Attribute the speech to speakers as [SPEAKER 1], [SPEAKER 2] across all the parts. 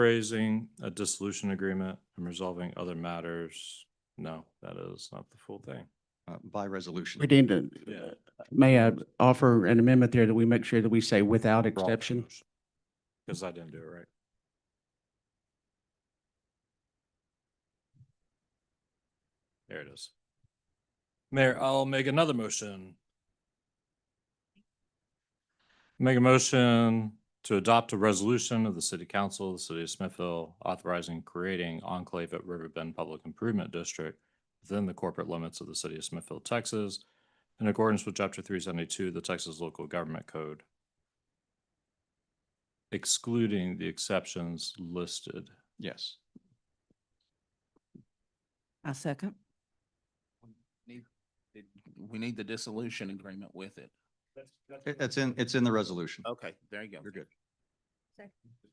[SPEAKER 1] Authorizing a dissolution agreement and resolving other matters. No, that is not the full thing.
[SPEAKER 2] uh, by resolution.
[SPEAKER 3] We need to,
[SPEAKER 1] Yeah.
[SPEAKER 3] may I offer an amendment there that we make sure that we say without exception?
[SPEAKER 1] Because I didn't do it right. There it is. Mayor, I'll make another motion. Make a motion to adopt a resolution of the city council of the city of Smithville authorizing creating enclave at River Bend Public Improvement District within the corporate limits of the city of Smithville, Texas, in accordance with chapter three seventy-two of the Texas Local Government Code excluding the exceptions listed.
[SPEAKER 2] Yes.
[SPEAKER 4] I second.
[SPEAKER 5] Need- it- We need the dissolution agreement with it.
[SPEAKER 2] It- It's in, it's in the resolution.
[SPEAKER 6] Oh.
[SPEAKER 5] Okay, there you go.
[SPEAKER 2] You're good.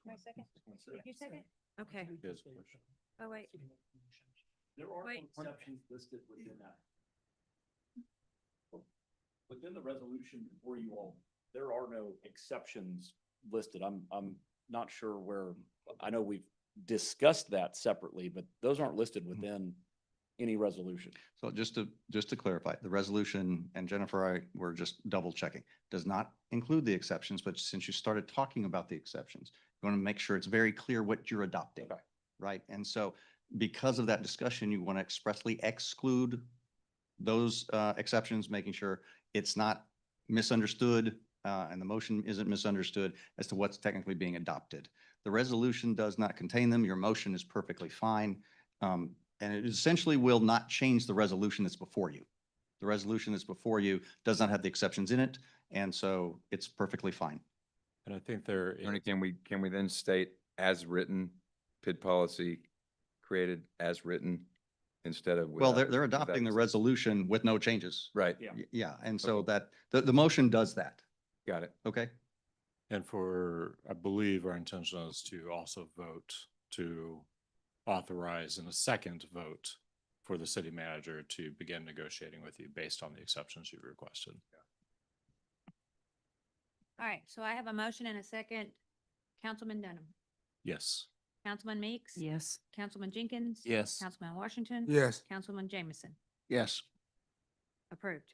[SPEAKER 7] My second? Did you second? Okay. Oh, wait.
[SPEAKER 6] There are
[SPEAKER 7] Wait.
[SPEAKER 6] exceptions listed within that. Within the resolution before you all, there are no exceptions listed. I'm, I'm not sure where, I know we've discussed that separately, but those aren't listed
[SPEAKER 2] Mm-hmm.
[SPEAKER 6] within any resolution.
[SPEAKER 2] So just to, just to clarify, the resolution, and Jennifer, I were just double checking, does not include the exceptions, but since you started talking about the exceptions, you want to make sure it's very clear what you're adopting,
[SPEAKER 6] Okay.
[SPEAKER 2] right? And so because of that discussion, you want to expressly exclude those uh, exceptions, making sure it's not misunderstood uh, and the motion isn't misunderstood as to what's technically being adopted. The resolution does not contain them. Your motion is perfectly fine. Um, and it essentially will not change the resolution that's before you. The resolution that's before you does not have the exceptions in it, and so it's perfectly fine.
[SPEAKER 1] And I think there, is-
[SPEAKER 8] Attorney, can we, can we then state as written, PID policy created as written instead of?
[SPEAKER 2] Well,
[SPEAKER 8] without-
[SPEAKER 2] they're, they're
[SPEAKER 8] without
[SPEAKER 2] adopting the
[SPEAKER 8] exception?
[SPEAKER 2] resolution with no changes.
[SPEAKER 8] Right,
[SPEAKER 6] Yeah.
[SPEAKER 2] Y- Yeah, and so that, the, the motion does that,
[SPEAKER 8] got it.
[SPEAKER 2] okay?
[SPEAKER 1] and for, I believe our intention is to also vote to authorize in a second vote for the city manager to begin negotiating with you based on the exceptions you've requested.
[SPEAKER 7] All right, so I have a motion and a second. Councilman Dunham,
[SPEAKER 1] Yes.
[SPEAKER 7] Councilman Meeks.
[SPEAKER 4] Yes.
[SPEAKER 7] Councilman Jenkins.
[SPEAKER 5] Yes.
[SPEAKER 7] Councilman Washington.
[SPEAKER 5] Yes.
[SPEAKER 7] Councilman Jameson,
[SPEAKER 5] Yes.
[SPEAKER 7] approved.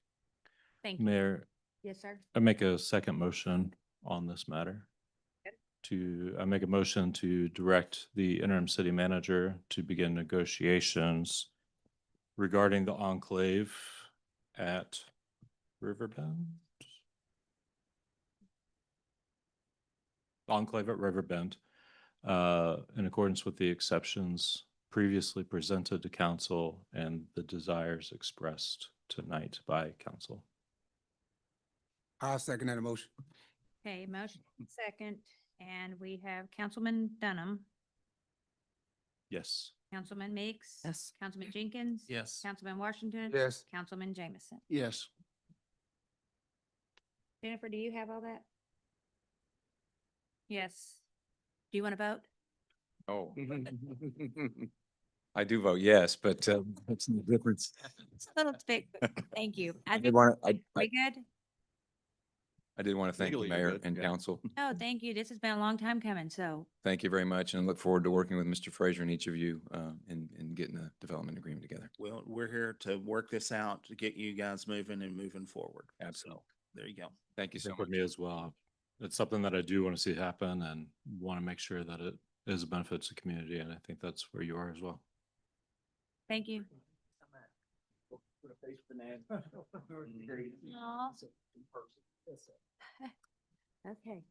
[SPEAKER 7] Thank you.
[SPEAKER 1] Mayor,
[SPEAKER 7] Yes, sir.
[SPEAKER 1] I make a second motion on this matter. To, I make a motion to direct the interim city manager to begin negotiations regarding the enclave at Riverbend? Enclave at Riverbend, uh, in accordance with the exceptions previously presented to council and the desires expressed tonight by council.
[SPEAKER 9] I'll second that motion.
[SPEAKER 7] Okay, motion second, and we have Councilman Dunham,
[SPEAKER 1] Yes.
[SPEAKER 7] Councilman Meeks.
[SPEAKER 4] Yes.
[SPEAKER 7] Councilman Jenkins.
[SPEAKER 5] Yes.
[SPEAKER 7] Councilman Washington.
[SPEAKER 9] Yes.
[SPEAKER 7] Councilman Jameson.
[SPEAKER 9] Yes.
[SPEAKER 7] Jennifer, do you have all that? Yes. Do you want to vote?
[SPEAKER 8] Oh, I do vote yes, but uh, that's the difference.
[SPEAKER 7] It's a little bit, thank you. I
[SPEAKER 8] I
[SPEAKER 7] think
[SPEAKER 8] did want, I,
[SPEAKER 7] we
[SPEAKER 8] I-
[SPEAKER 7] good?
[SPEAKER 8] I did want to thank the
[SPEAKER 2] Legally, you're
[SPEAKER 8] mayor
[SPEAKER 2] good,
[SPEAKER 8] and
[SPEAKER 2] yeah.
[SPEAKER 8] council.
[SPEAKER 7] No, thank you. This has been a long time coming, so
[SPEAKER 8] Thank you very much and I look forward to working with Mr. Fraser and each of you uh, in, in getting a development agreement together.
[SPEAKER 5] Well, we're here to work this out, to get you guys moving and moving forward.
[SPEAKER 8] Absolutely.
[SPEAKER 5] So, There you go.
[SPEAKER 8] Thank you so
[SPEAKER 1] think
[SPEAKER 8] much.
[SPEAKER 1] with me as well. It's something that I do want to see happen and want to make sure that it is a benefit to the community. And I think that's where you are as well.
[SPEAKER 7] thank you.
[SPEAKER 6] Put a face with an
[SPEAKER 7] Aw. Okay.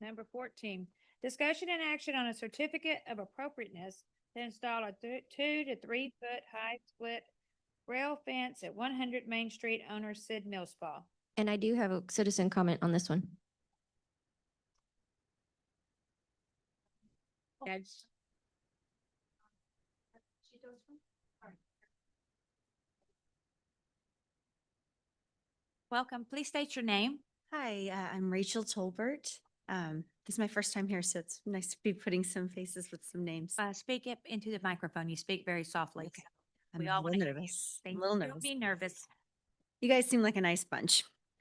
[SPEAKER 7] Number fourteen, discussion and action on a certificate of appropriateness to install a thu- two to three foot high split rail fence at one hundred Main Street, owner Sid Millspaw.
[SPEAKER 10] And I do have a citizen comment on this one.
[SPEAKER 7] That's- Welcome, please state your name.
[SPEAKER 11] Hi, uh, I'm Rachel Tolbert. Um, This is my first time here, so it's nice to be putting some faces with some names.
[SPEAKER 7] Uh, speak up into the microphone. You speak very softly.
[SPEAKER 11] I'm
[SPEAKER 7] we
[SPEAKER 11] a
[SPEAKER 7] all
[SPEAKER 11] little
[SPEAKER 7] wanna hear you.
[SPEAKER 11] nervous. I'm
[SPEAKER 7] Thank
[SPEAKER 11] a little
[SPEAKER 7] you. Don't
[SPEAKER 11] nervous.
[SPEAKER 7] Be nervous.
[SPEAKER 11] You guys seem like a nice bunch.